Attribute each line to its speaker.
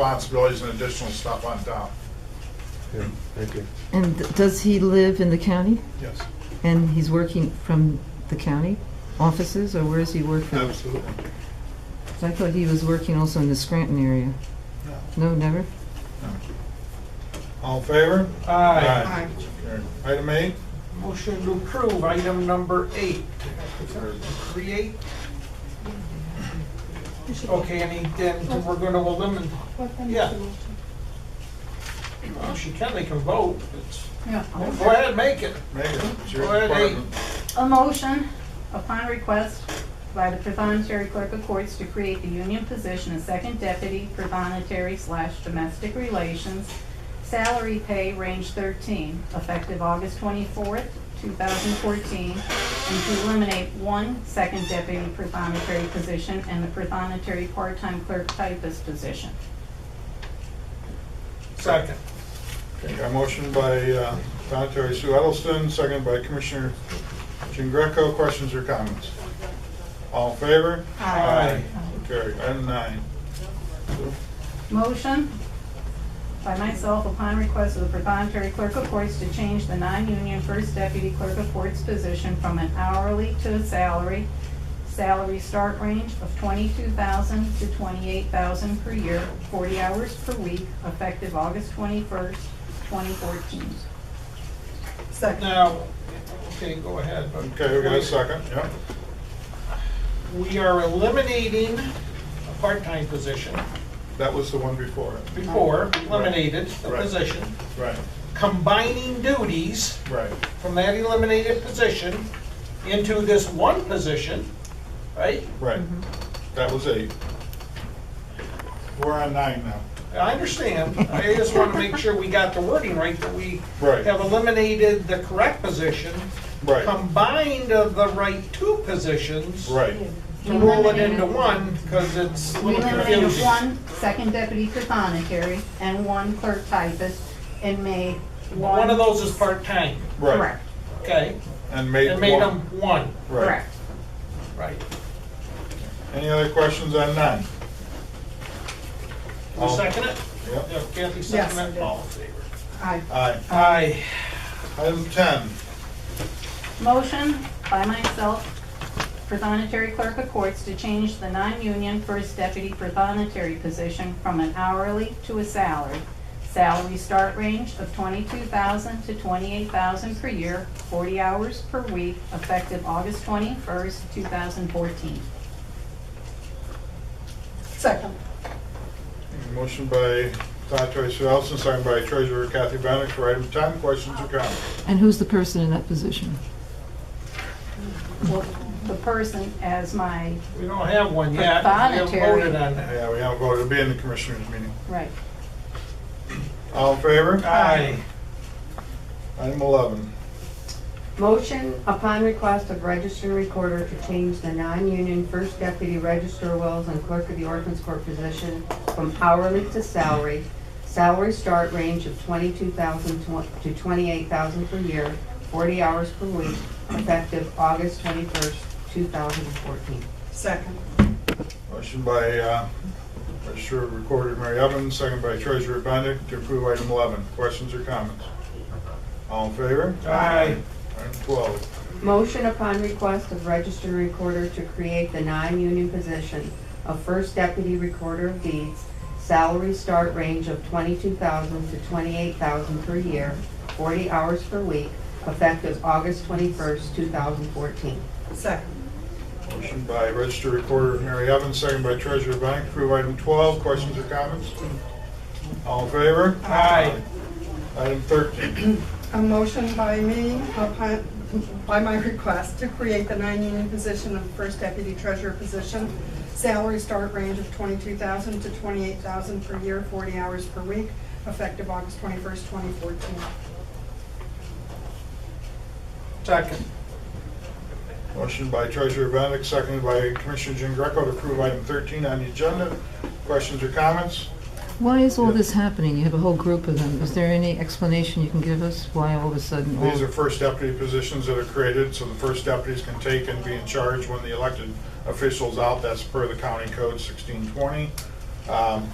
Speaker 1: responsibilities and additional stuff on top.
Speaker 2: Yeah, Thank you.
Speaker 3: And th- does he live in the county?
Speaker 1: Yes,
Speaker 3: And he's working from the county offices, or where does he work from?
Speaker 1: absolutely.
Speaker 3: 'Cause I thought he was working also in the Scranton area.
Speaker 1: No.
Speaker 3: No, never?
Speaker 1: All in favor?
Speaker 4: Aye.
Speaker 1: Carried. Item eight,
Speaker 4: Motion to approve item number eight. Create, okay, and he- then we're gonna eliminate, Yeah. well, she can, they can vote. It's- Go ahead, make it.
Speaker 1: Megan, it's your
Speaker 4: Go ahead, eight.
Speaker 1: department.
Speaker 5: A motion upon request by the Premonitory Clerk of Courts to create the union position of second deputy premonitory slash domestic relations, salary pay range thirteen, effective August twenty-fourth, two thousand fourteen, and to eliminate one second deputy premonitory position and the premonitory part-time clerk typist position.
Speaker 4: Second.
Speaker 1: Okay, got a motion by uh, Secretary Sue Edelson, seconded by Commissioner Jean Greco. Questions or comments? All in favor?
Speaker 4: Aye.
Speaker 1: So Carried. Item nine.
Speaker 5: Motion by myself upon request of the proprietary clerk of courts to change the non-union first deputy clerk of courts position from an hourly to a salary. Salary start range of twenty-two thousand to twenty-eight thousand per year, forty hours per week, effective August twenty-first, twenty fourteen.
Speaker 4: Now, okay, go ahead. but-
Speaker 1: Okay, we got a second, yeah.
Speaker 4: We are eliminating a part-time position
Speaker 1: That was the one before it.
Speaker 4: before, eliminated the
Speaker 1: Right.
Speaker 4: position,
Speaker 1: Right,
Speaker 4: combining duties
Speaker 1: right.
Speaker 4: from that eliminated position into this one position, right?
Speaker 1: Right, that was eight. We're on nine now.
Speaker 4: I understand. I just want to make sure we got the wording right, that we
Speaker 1: Right.
Speaker 4: have eliminated the correct position,
Speaker 1: Right,
Speaker 4: combined of the right two positions.
Speaker 1: right,
Speaker 4: To roll it into one, because it's a
Speaker 5: We
Speaker 4: little
Speaker 5: eliminated
Speaker 4: confusing.
Speaker 5: one second deputy proprietary and one clerk typist and made one.
Speaker 4: One of those is part-time,
Speaker 1: right.
Speaker 5: Correct,
Speaker 4: okay?
Speaker 1: And made
Speaker 4: And made them
Speaker 1: one.
Speaker 4: one,
Speaker 1: Right.
Speaker 5: correct.
Speaker 4: right.
Speaker 1: Any other questions on nine?
Speaker 4: You second it?
Speaker 1: Yep.
Speaker 4: Yeah, Kathy
Speaker 5: Yes, I
Speaker 4: second it?
Speaker 5: did.
Speaker 4: All in favor?
Speaker 5: Aye.
Speaker 1: Aye.
Speaker 4: Aye.
Speaker 1: Item ten,
Speaker 5: Motion by myself, Prothonotary Clerk of Courts, to change the non-union First Deputy Prothonotary position from an hourly to a salary. Salary start range of twenty-two thousand to twenty-eight thousand per year, forty hours per week, effective August twenty-first, two thousand fourteen. Second.
Speaker 1: motion by Secretary Sue Ellison, second by Treasurer Kathy Bennett for item ten, questions or comments?
Speaker 3: And who's the person in that position?
Speaker 5: The person as my,
Speaker 4: We don't have one yet. We haven't
Speaker 5: Proprietary.
Speaker 4: voted on that.
Speaker 1: Yeah, we haven't voted, it'll be in the commissioners' meeting.
Speaker 5: right,
Speaker 1: All in favor?
Speaker 4: Aye.
Speaker 1: Item eleven,
Speaker 6: Motion upon request of registered recorder to change the non-union first deputy register wills and clerk of the ordinance court position from hourly to salary. Salary start range of twenty-two thousand to twenty-eight thousand per year, forty hours per week, effective August twenty-first, two thousand and fourteen.
Speaker 1: motion by uh, Treasurer Recorder Mary Evans, second by Treasurer Bennett to approve item eleven, questions or comments? All in favor?
Speaker 4: Aye.
Speaker 1: Item twelve,
Speaker 6: Motion upon request of registered recorder to create the non-union position of first deputy recorder of deeds, salary start range of twenty-two thousand to twenty-eight thousand per year, forty hours per week, effective August twenty-first, two thousand fourteen.
Speaker 1: motion by Register Recorder Mary Evans, second by Treasurer Bennett to approve item twelve, questions or comments? All in favor?
Speaker 4: Aye.
Speaker 1: Item thirteen,
Speaker 7: A motion by me upon, by my request to create the non-union position of first deputy treasurer position. Salary start range of twenty-two thousand to twenty-eight thousand per year, forty hours per week, effective August twenty-first, twenty fourteen.
Speaker 4: Second.
Speaker 1: Motion by Treasurer Benedict, seconded by Commissioner Jean Greco to approve item 13 on the agenda. Questions or comments?
Speaker 3: Why is all
Speaker 1: Yeah.
Speaker 3: this happening? You have a whole group of them. Is there any explanation you can give us why all of a sudden? all-
Speaker 1: These are first deputy positions that are created, so the first deputies can take and be in charge when the elected official's out. That's per the county code 1620. Um,